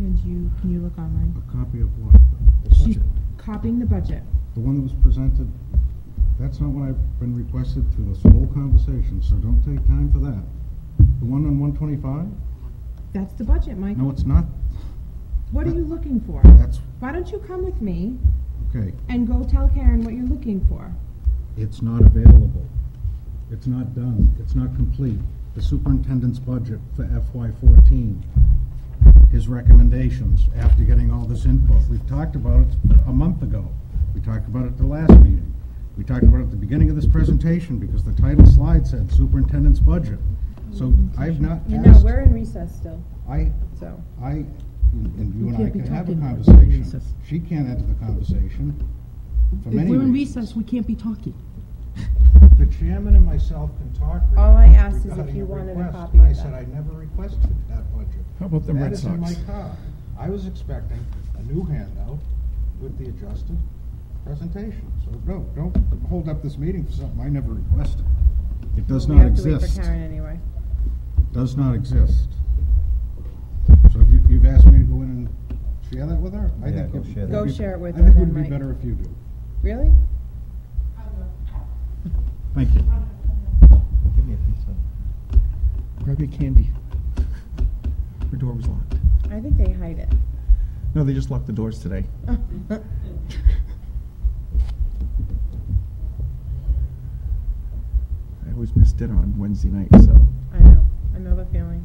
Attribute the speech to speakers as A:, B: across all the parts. A: Can you look online?
B: A copy of what? The
A: She's
B: budget?
A: copying the budget.
B: The one that was presented, that's not what I've been requested through this whole conversation, so don't take time for that. The one on one twenty-five?
A: That's the budget, Mike.
B: No, it's not.
A: What are you looking for?
B: That's,
A: Why don't you come with me
B: okay,
A: and go tell Karen what you're looking for?
B: it's not available. It's not done. It's not complete. The superintendent's budget for FY fourteen, his recommendations after getting all this input. We've talked about it a month ago. We talked about it at the last meeting. We talked about it at the beginning of this presentation because the title slide said superintendent's budget. So I've not
A: You know,
B: asked,
A: we're in recess still,
B: I,
A: so.
B: I, and you
C: We
B: and I
C: can't be
B: can have a
C: talking when we're in
B: conversation.
C: recess.
B: She can't enter the conversation for
C: If
B: many
C: we're in
B: reasons.
C: recess, we can't be talking.
D: The chairman and myself can talk. re-
A: All I asked is if
D: regarding
A: you
D: a
A: wanted a
D: request.
A: copy of
D: I said
A: that.
D: I never requested that budget.
B: Oh,
E: How about the
D: That
E: Red
D: is in my
E: Sox?
D: car. I was expecting a new handout with the adjusted presentation.
B: So, no, don't hold up this meeting for something I never requested. It does
A: We
B: not
A: have to wait for
B: exist.
A: Karen anyway.
B: Does not exist. So if you, you've asked me to go in and share that with her? I
F: Yeah,
B: think
F: go
B: it-
F: share
B: it'd
F: that. Go
B: be-
A: share it with
B: I think
A: her
B: it would
A: then,
B: be
A: Mike.
B: better if you do.
A: Really?
B: Thank you.
F: Give me a pizza.
E: Grab your candy. Her door was locked.
A: I think they hide it.
E: No, they just locked the doors today. I always miss dinner on Wednesday night, so.
A: I know, I know the feeling.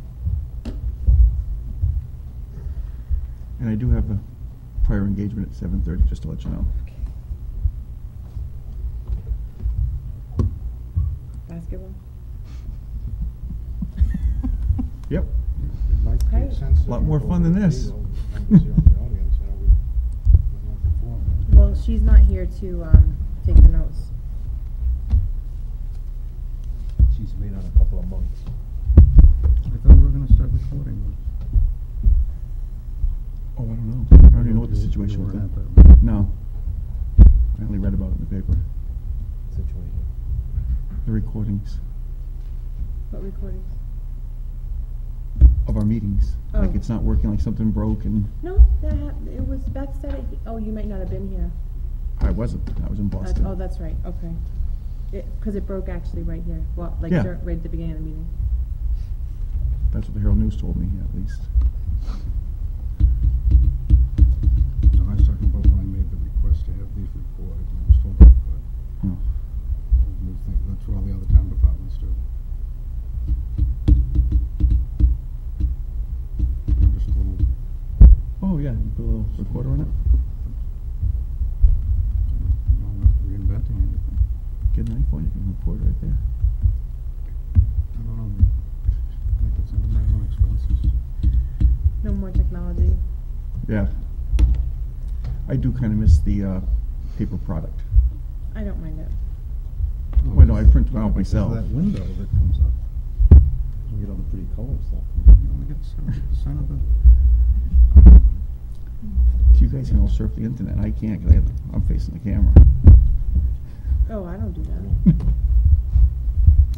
E: And I do have a prior engagement at 7:30, just to let you know.
A: Basketball?
E: Yep.
D: It might
A: Hey.
D: make sense. if
E: Lot
D: you
E: more
D: go
E: fun than
D: over
E: this.
D: legal members here in the audience, how we- we're not performing.
A: Well, she's not here to, um, take the notes.
F: She's waiting on a couple of months.
B: I thought we were gonna start recording.
E: Oh, I don't know. I don't even know what the situation was then. No. I only read about it in the paper.
F: Situation.
E: The recordings
A: What recordings?
E: of our meetings. Like
A: Oh.
E: it's not working, like something broke and
A: No, that, hap- it was, Beth said it, oh, you might not have been here.
E: I wasn't. I was in
A: That's-
E: Boston.
A: Oh, that's right, okay. It, cause it broke actually right here, well, like,
E: Yeah.
A: dur- right at the beginning of the meeting.
E: That's what the Herald News told me, at least.
B: No, I was talking about when I made the request to have these recorded, and I was told I could.
E: Oh.
B: And you think That's what all the other town departments do. I'm just a little,
E: Oh yeah, you put a little recorder on it.
B: I'm not reinventing anything.
E: Get an iPhone, you can record right there.
B: I don't know, I think it's under my own expenses.
A: No more technology.
E: Yeah. I do kind of miss the uh, paper product.
A: I don't mind it.
E: Wait, no, I print them out
B: Because of
E: myself.
B: That window that comes up,
F: You get all the pretty colors though.
B: you only get seventy percent of the.
E: So you guys can all surf the internet. I can't because I'm facing the camera.
A: Oh, I don't do that.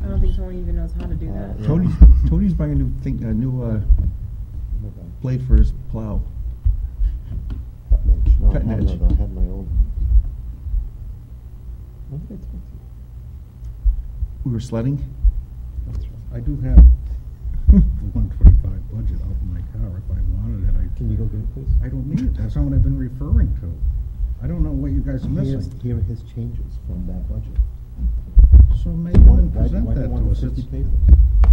A: I don't think Tony even knows how to do that.
F: Yeah.
E: Tony's Tony's buying a new thing, a new uh, blade for his plow.
F: Cutting edge. No, I
E: Cutting
F: had
E: edge.
F: another. I had my own. What did I talk to? you?
E: We were sledding.
F: That's right.
B: I do have the one twenty-five budget out in my car if I wanted it, I.
F: Can you go get it, please?
B: I don't need it, that's not what I've been referring to. I don't know what you guys are
F: Here's-
B: missing.
F: Here are his changes from that budget.
B: So maybe you
F: One-
B: can present
F: why, why
B: that
F: one
B: to us.
F: fifty
B: It's-
F: papers?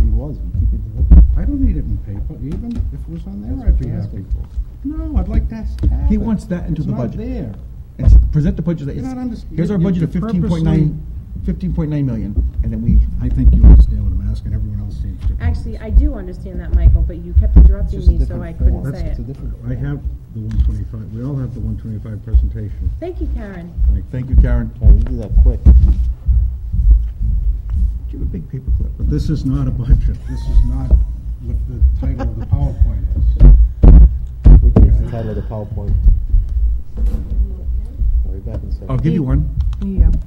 F: He was. We keep it delivered.
B: I don't need it in paper, even if it was on there,
F: That's
B: I'd
F: what
B: be
F: you're
B: happy.
F: asking for.
B: No, I'd like to have
E: He
B: it.
E: wants that into
B: It's
E: the
B: not
E: budget.
B: there.
E: It's, present the budget. that
B: You're
E: it's-
B: not underst-
E: here's our
B: you-
E: budget
B: you
E: of 15.9, 15.9 million, and then we.
B: I think you understand what I'm asking, everyone else seems to.
A: Actually, I do understand that, Michael, but you kept interrupting
F: It's just a
A: me, so
F: different
A: I
F: form.
A: couldn't say
F: It's a
A: it.
F: different
B: I
F: form.
B: have the one twenty-five, we all have the one twenty-five presentation.
A: Thank you, Karen.
E: Thank you, Karen.
F: Karen, you do that quick.
E: Give a big paperclip.
B: But this is not a budget, this is not what the title of the PowerPoint is.
F: We changed the title of the PowerPoint. I'll be back in a second.
E: I'll give you one.
C: Yeah.